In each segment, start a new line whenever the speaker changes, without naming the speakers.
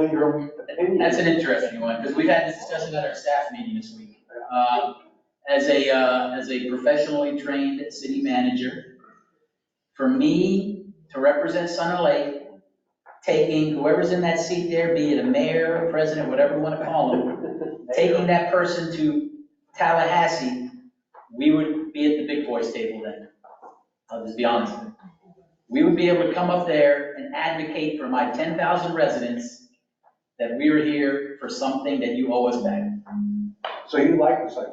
know your opinion.
That's an interesting one, because we've had this discussion at our staff meeting this week. Um, As a, uh, as a professionally trained city manager, for me to represent Sunny Lake, taking whoever's in that seat there, be it a mayor, president, whatever you want to call them, taking that person to Tallahassee, we would be at the big boys table then. I'll just be honest. We would be able to come up there and advocate for my 10,000 residents that we are here for something that you owe us back.
So you like this idea?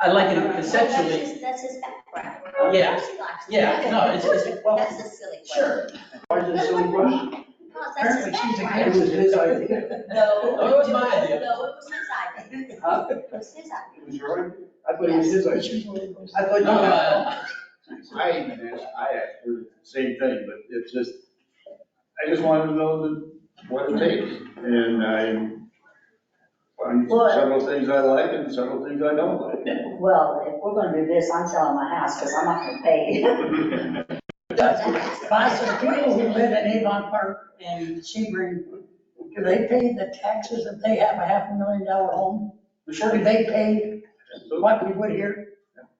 I like it
That's
conceptually,
his- That's his background.
Yeah.
She likes it.
yeah, no, it's, it's, well,
That's a silly question.
sure.
Why is it so rushed?
No, that's his
Apparently she's a
background.
It was his idea.
No.
That was my idea.
No, it was his idea.
Huh?
It was his idea.
It was your idea? I thought it was his idea. I thought you
No,
had.
uh,
I even asked, I asked her the same thing, but it's just, I just wanted to know the, what it takes. And I find several things I like and several things I don't like.
Well, if we're gonna do this, I'm selling my house, because I'm not gonna pay.
By some people who live in Avon Park and Sebring, do they pay the taxes if they have a half a million dollar home? Sure. Do they pay
So,
what we would here?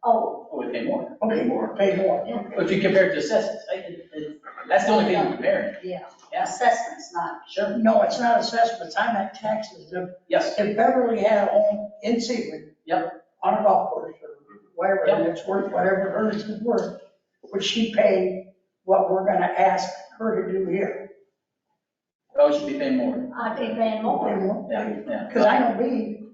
Oh,
we pay more.
Okay, more, pay more.
If you compare it to assessments, I- it- it- that's the only thing I'm comparing.
yeah,
Yes,
Assessment's not,
sure,
No, it's not assessments, I meant taxes. If
yes,
if Beverly had a home in Sebring. On a golf course or wherever, and it's worth whatever hers is worth, would she pay what we're gonna ask her to do here?
oh, we should be paying more,
I'd be paying
Pay
more.
more?
yeah, yeah.
Because I don't believe,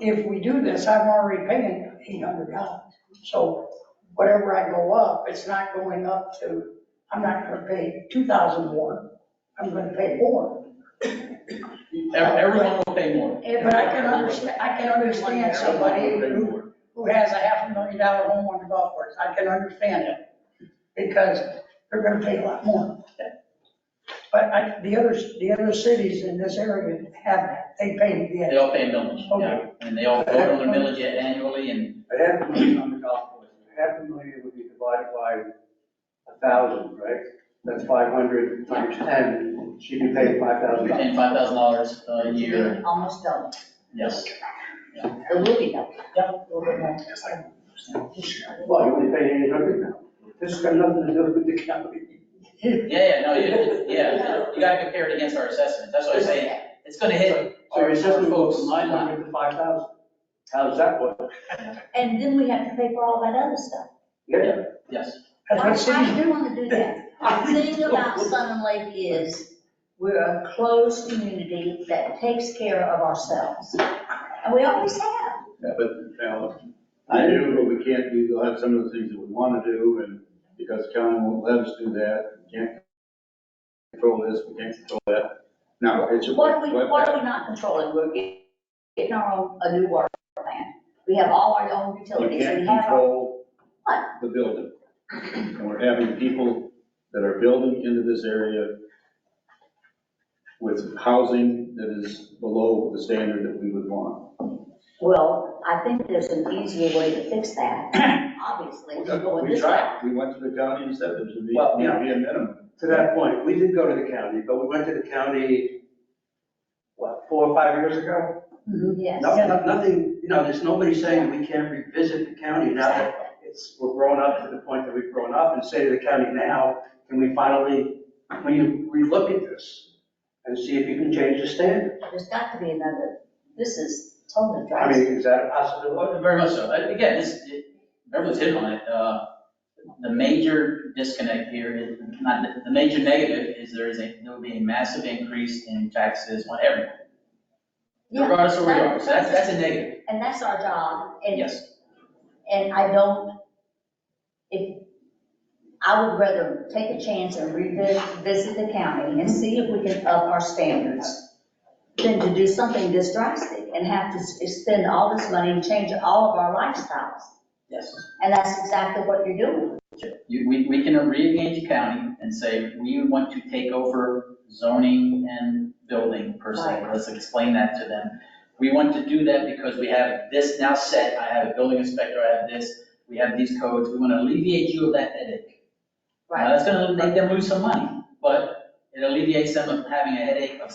if we do this, I'm already paying eight hundred dollars. So whatever I go up, it's not going up to, I'm not gonna pay two thousand more, I'm gonna pay more.
Ev- Everyone will pay more.
But I can understand, I can understand somebody who, who has a half a million dollar home on the golf course, I can understand it. Because they're gonna pay a lot more. But I, the other, the other cities in this area have that, they pay the.
They all pay millage, yeah, and they all vote on their millage annually and,
A half a million on the golf course. A half a million would be divided by a thousand, right? That's five hundred times ten. She'd be paying five thousand
we
dollars.
pay five thousand dollars a year,
almost double,
yes.
or will be double.
Well, you only pay eight hundred now. This has got nothing to do with the county.
Yeah, yeah, no, you- yeah, you gotta compare it against our assessments, that's what I'm saying, it's gonna hit
So your
our
assessment goes
folks.
from nine hundred to five thousand. How's that work?
And then we have to pay for all that other stuff.
Yeah.
Yes.
That's
I-
what cities
I
do.
do want to do that.
The thing about Sun and Lake is, we're a closed community that takes care of ourselves.
And we always have.
yeah, but now, I do, but we can't do, we'll have some of the things that we want to do and because county won't let us do that, we can't control this, we can't control that. Now, it's.
What are we, what are we not controlling? We're get- getting our own, a new water plant. We have all our own
You
utilities, we
can't
have our
control the building. And we're having people that are building into this area with housing that is below the standard that we would want.
Well, I think there's an easier way to fix that, obviously, than going
We
this way.
tried, we went to the county and said there should be,
Well,
you know, be a minimum.
To that point, we did go to the county, but we went to the county, what, four or five years ago?
Mm-hmm, Yes.
No- no- Nothing, you know, there's nobody saying we can't revisit the county now that it's, we're grown up to the point that we've grown up and say to the county now, can we finally, when you relook at this and see if you can change the standard?
There's got to be another, this is totally
I
dry.
mean, is that a possibility?
Well, Very much so. And Again, this, it- everyone's hit on it. Uh, The major disconnect here is, not, the- the major negative is there is a, there will be a massive increase in taxes on everyone.
Yeah,
Regardless of where you are, so that's,
that-
that's a negative,
And that's our job, and,
yes.
and I don't, if, I would rather take a chance and revisit the county and see if we can up our standards than to do something this drastic and have to s- spend all this money and change all of our lifestyles.
Yes.
And that's exactly what you're doing.
You, we, we can re-engage the county and say, we want to take over zoning and building per se. Let's explain that to them. We want to do that because we have this now set, I have a building inspector, I have this, we have these codes, we want to alleviate you of that headache. Now, that's gonna make them lose some money, but it alleviates them of having a headache of